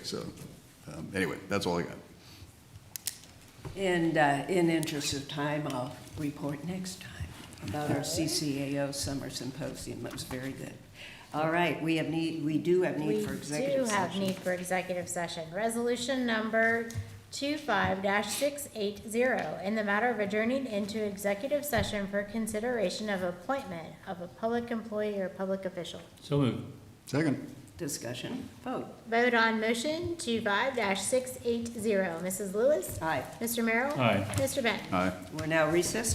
so, um, anyway, that's all I got. And uh, in interest of time, I'll report next time about our CCAO Summer Symposium. That was very good. All right, we have need, we do have need for executive We do have session. need for executive session. Resolution number two-five dash six-eight-zero, in the matter of adjourning into executive session for consideration of appointment of a public employee or public official. So moved. Second, Discussion, vote. Vote on motion two-five dash six-eight-zero. Mrs. Lewis? Aye, Mr. Merrill? Aye. Mr. Benton? aye. we're now recessed.